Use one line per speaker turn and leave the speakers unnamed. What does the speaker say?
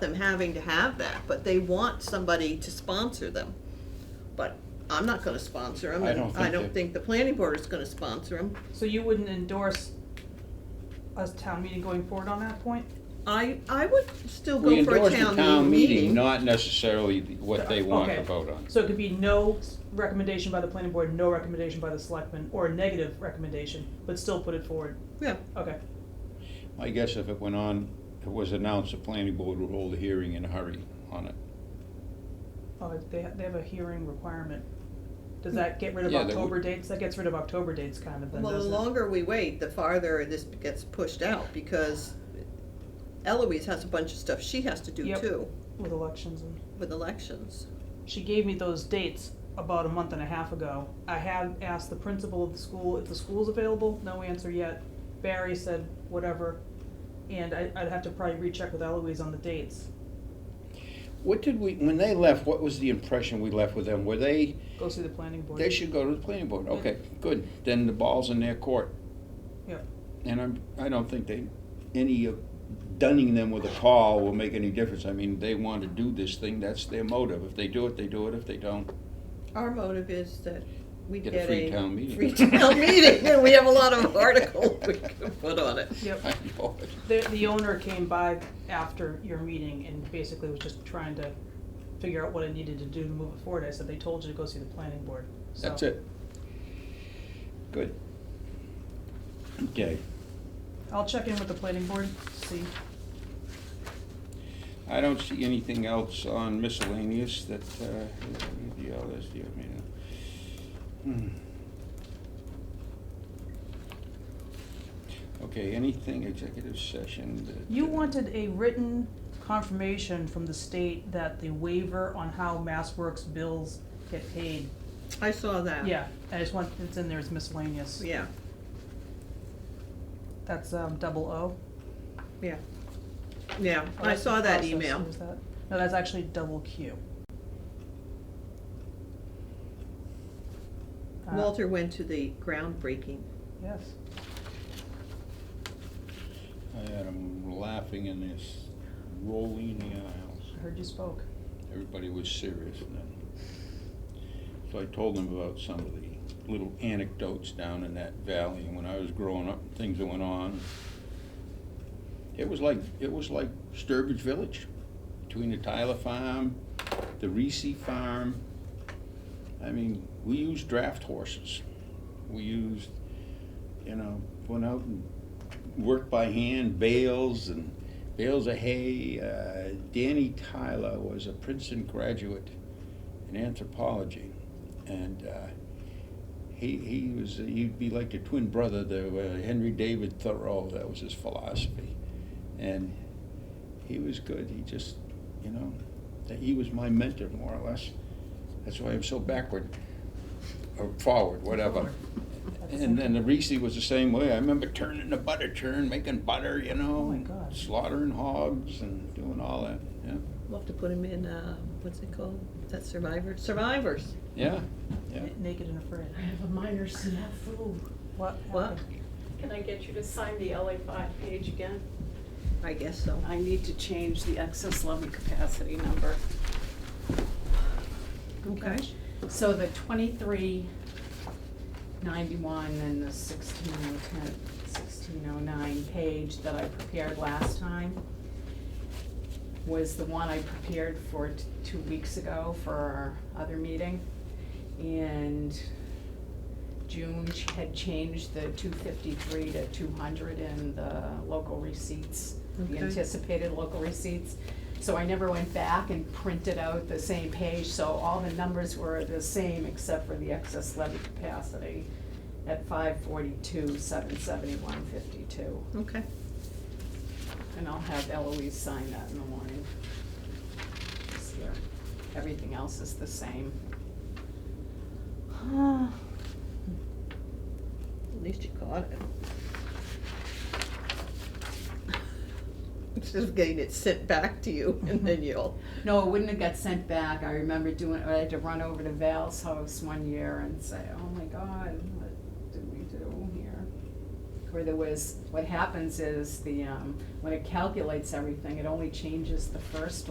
them having to have that, but they want somebody to sponsor them. But I'm not gonna sponsor them,
I
and
don't
I
think
don't
that-
think the planning board is gonna sponsor them.
So you wouldn't endorse us town meeting going forward on that point?
I, I would still go
We
for a
endorse the town
town meeting.
meeting, not necessarily the- what they want to
Okay.
vote on.
So it could be no s- recommendation by the planning board, no recommendation by the selectmen, or a negative recommendation, but still put it forward,
Yeah,
okay.
I guess if it went on, it was announced, the planning board would hold a hearing in a hurry on it.
Oh, they, ha- they have a hearing requirement. Does that get rid of
Yeah, they would-
October dates? That gets rid of October dates kind of then,
well, the
doesn't it?
longer we wait, the farther this gets pushed out, because Eloise has a bunch of stuff she has to do
Yep.
too,
With elections and,
with elections.
she gave me those dates about a month and a half ago. I have asked the principal of the school if the school's available, no answer yet. Barry said whatever, and I, I'd have to probably recheck with Eloise on the dates.
What did we, when they left, what was the impression we left with them? Were they,
Go see the planning board.
they should go to the planning board, okay, good, then the ball's in their court.
Yep.
And I'm, I don't think they, any of dunning them with a call will make any difference. I mean, they want to do this thing, that's their motive. If they do it, they do it, if they don't,
Our motive is that we
Get
get
a
a.
free town meeting.
free town meeting, and we have a lot of articles we can put on it.
Yep.
I know it.
The, the owner came by after your meeting and basically was just trying to figure out what I needed to do to move it forward. I said, they told you to go see the planning board, so.
That's it. Good. Okay,
I'll check in with the planning board, see.
I don't see anything else on miscellaneous that, uh, the others, do you mean? uh, hmm. Okay, anything executive session that?
You
uh,
wanted a written confirmation from the state that the waiver on how MassWorks bills get paid.
I saw that.
Yeah, I just want, it's in there as miscellaneous.
Yeah,
That's, um, double O.
yeah. Yeah,
Oh,
I
that's
saw
the
that
process.
email.
Who's that? No, that's actually double Q. Uh,
Walter went to the groundbreaking.
Yes.
I had 'em laughing in this rolling the aisles.
I heard you spoke.
Everybody was serious and then. So I told them about some of the little anecdotes down in that valley when I was growing up, things that went on. It was like, it was like Sturbridge Village, between the Tyler Farm, the Reese Farm. I mean, we used draft horses. We used, you know, went out and worked by hand, bales and bales of hay. Uh, Danny Tyler was a Princeton graduate in anthropology, and uh, he he was he'd be like the twin brother to uh, Henry David Thoreau. That was his philosophy, and he was good. He just, you know, that he was my mentor more or less. That's why I'm so backward or forward, whatever.
Forward. At the same
And then the Reese was the same way. I remember turning the butter churn, making butter, you know.
Oh my God.
Slaughtering hogs and doing all that, yeah.
We'll have to put him in, uh, what's it called? Is that Survivor? Survivors.
Yeah, yeah.
N- Naked and afraid.
I have a minor snafu.
What
What?
happened?
Can I get you to sign the LA five page again?
I guess so.
I need to change the excess levy capacity number.
Okay.
So the twenty-three ninety-one and the sixteen oh ten, sixteen oh nine page that I prepared last time was the one I prepared for t- two weeks ago for our other meeting. And June ch- had changed the two fifty-three to two hundred in the local receipts, the
Okay.
anticipated local receipts. So I never went back and printed out the same page, so all the numbers were the same except for the excess levy capacity at five forty-two, seven seventy-one, fifty-two.
Okay.
And I'll have Eloise sign that in the morning. It's here. Everything else is the same.
At least you caught it. Instead of getting it sent back to you and then you'll,
No, it wouldn't have got sent back. I remember doing, I had to run over to Val's house one year and say, oh my God, what did we do here? where there was, what happens is the, um, when it calculates everything, it only changes the first